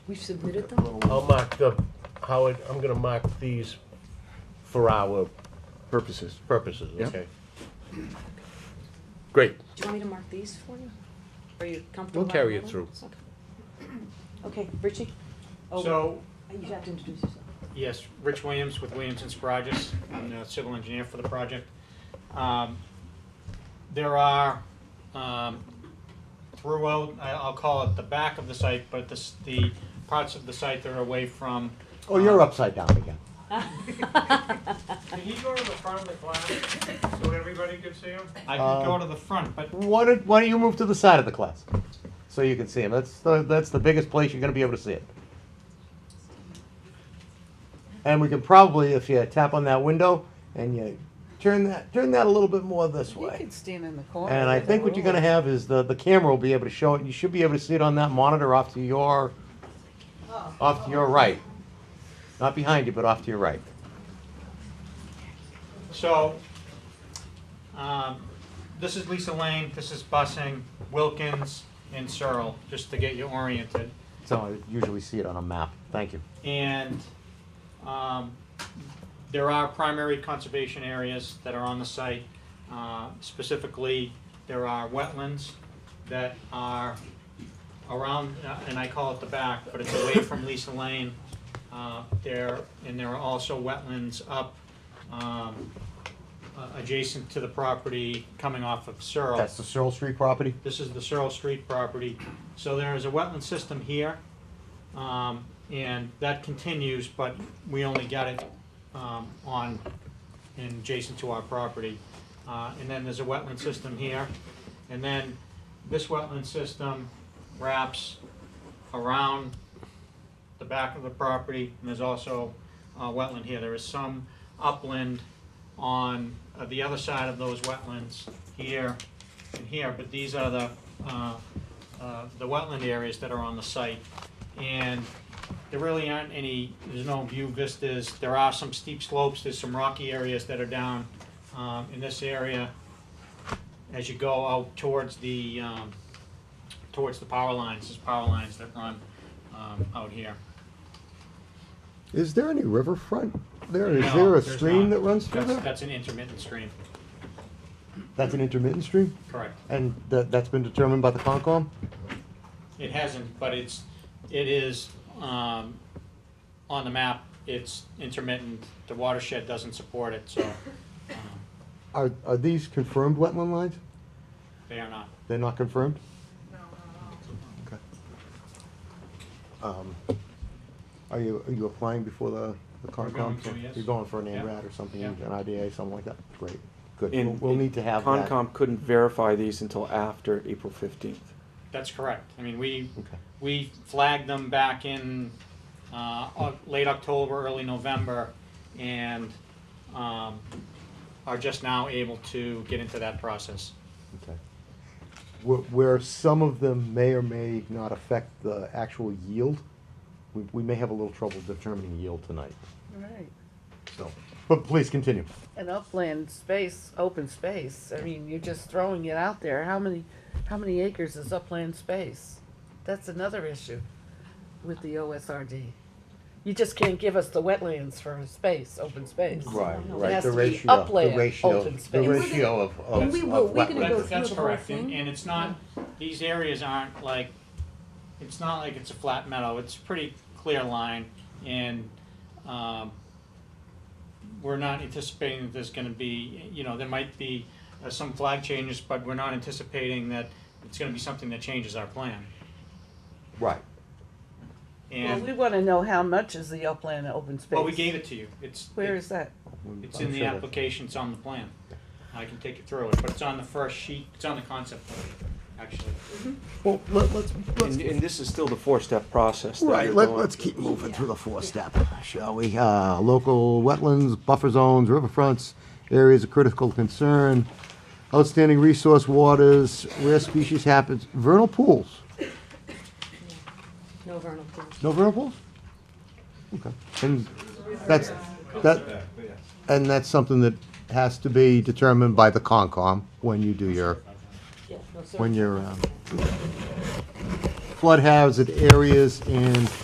We've submitted them? I'll mark the, Howard, I'm gonna mark these for our purposes. purposes, Yeah. okay? Great, Do you want me to mark these for you? Are you comfortable? we'll carry it marking through. them? Okay, Okay, Richie? Oh, So, You have to introduce yourself. yes, Rich Williams with Williams and Sprogis, I'm the civil engineer for the project. Um, There are, um, throughout, I- I'll call it the back of the site, but the, s- the parts of the site that are away from. um, Oh, you're upside down again. Can he go to the front of the class, so everybody could see him? I can Uh, go to the front, but Why don't, why don't you move to the side of the class? So you can see him. That's the, that's the biggest place you're gonna be able to see it. And we can probably, if you tap on that window and you turn that, turn that a little bit more this You way. could stand in the corner. And I think what you're gonna have is the, the camera will be able to show it. You should be able to see it on that monitor off to your, Oh. off to your right. Not behind you, but off to your right. So, um, this is Lisa Lane, this is busing, Wilkins and Searle, just to get you oriented. So I usually see it on a map. Thank you. And, um, there are primary conservation areas that are on the site. Uh, specifically, there are wetlands that are around, uh, and I call it the back, but it's away from Lisa Lane. Uh, there, and there are also wetlands up, um, uh, adjacent to the property coming off of Searle. That's the Searle Street property. This is the Searle Street property. So there is a wetland system here, um, and that continues, but we only got it, um, on, and adjacent to our property. Uh, and then there's a wetland system here, and then this wetland system wraps around the back of the property, and there's also, uh, wetland here. There is some upland on uh, the other side of those wetlands here and here, but these are the, uh, uh, the wetland areas that are on the site. And there really aren't any, there's no view vistas, there are some steep slopes, there's some rocky areas that are down, um, in this area. As you go out towards the, um, towards the power lines, there's power lines that run, um, out here. Is there any riverfront there? Is No, there a there's not. stream that runs through That's- there? That's an intermittent stream, That's an intermittent stream? correct. And that, that's been determined by the Concom? It hasn't, but it's, it is, um, on the map, it's intermittent, the watershed doesn't support it, so, um, Are, are these confirmed wetland lines? they are not. They're not confirmed? Okay. Um, Are you, are you applying before the, the We're Concom? going to, yes. You're going for an NRAD Yeah. or something, Yeah. an IDA, something like that? Great, good. We'll, And we'll need to have that. Concom couldn't verify these until after April fifteenth. That's correct. I mean, we, Okay. we flagged them back in, uh, Oc- late October, early November, and, um, are just now able to get into that process. Okay. Where, where some of them may or may not affect the actual yield, we, we may have a little trouble determining yield tonight, Right. so, but please continue. An upland space, open space, I mean, you're just throwing it out there, how many, how many acres is upland space? That's another issue with the OSRD. You just can't give us the wetlands for space, open space. Right, It right. has the to be ratio, upland, the ratio, open the space. ratio of, of, And we will- of we're gonna go through wetlands. That's, that's the whole correct, and, thing? and it's not, these areas aren't like, it's not like it's a flat meadow, it's pretty clear line, and, um, we're not anticipating that there's gonna be, you know, there might be uh, some flag changes, but we're not anticipating that it's gonna be something that changes our plan, Right. Well, and, we wanna know how much is the upland and open space. well, we gave it to you, it's, Where is that? it's I'm in the sure that- application, it's on the plan. I can take you through it, but it's on the first sheet, it's on the concept plan, actually. Well, let, let's, let's, And, and this is still the four-step process. that right, you're let, going let's through. keep moving through the four step, shall we? Uh, local wetlands, buffer zones, riverfronts, areas of critical concern, outstanding resource waters, rare species happens, vernal pools. No vernal pools. No vernal pools? Okay, and that's, that, and that's something that has to be determined by the Concom when you do your, Yeah, no, sir. when your, um, flood hazard areas and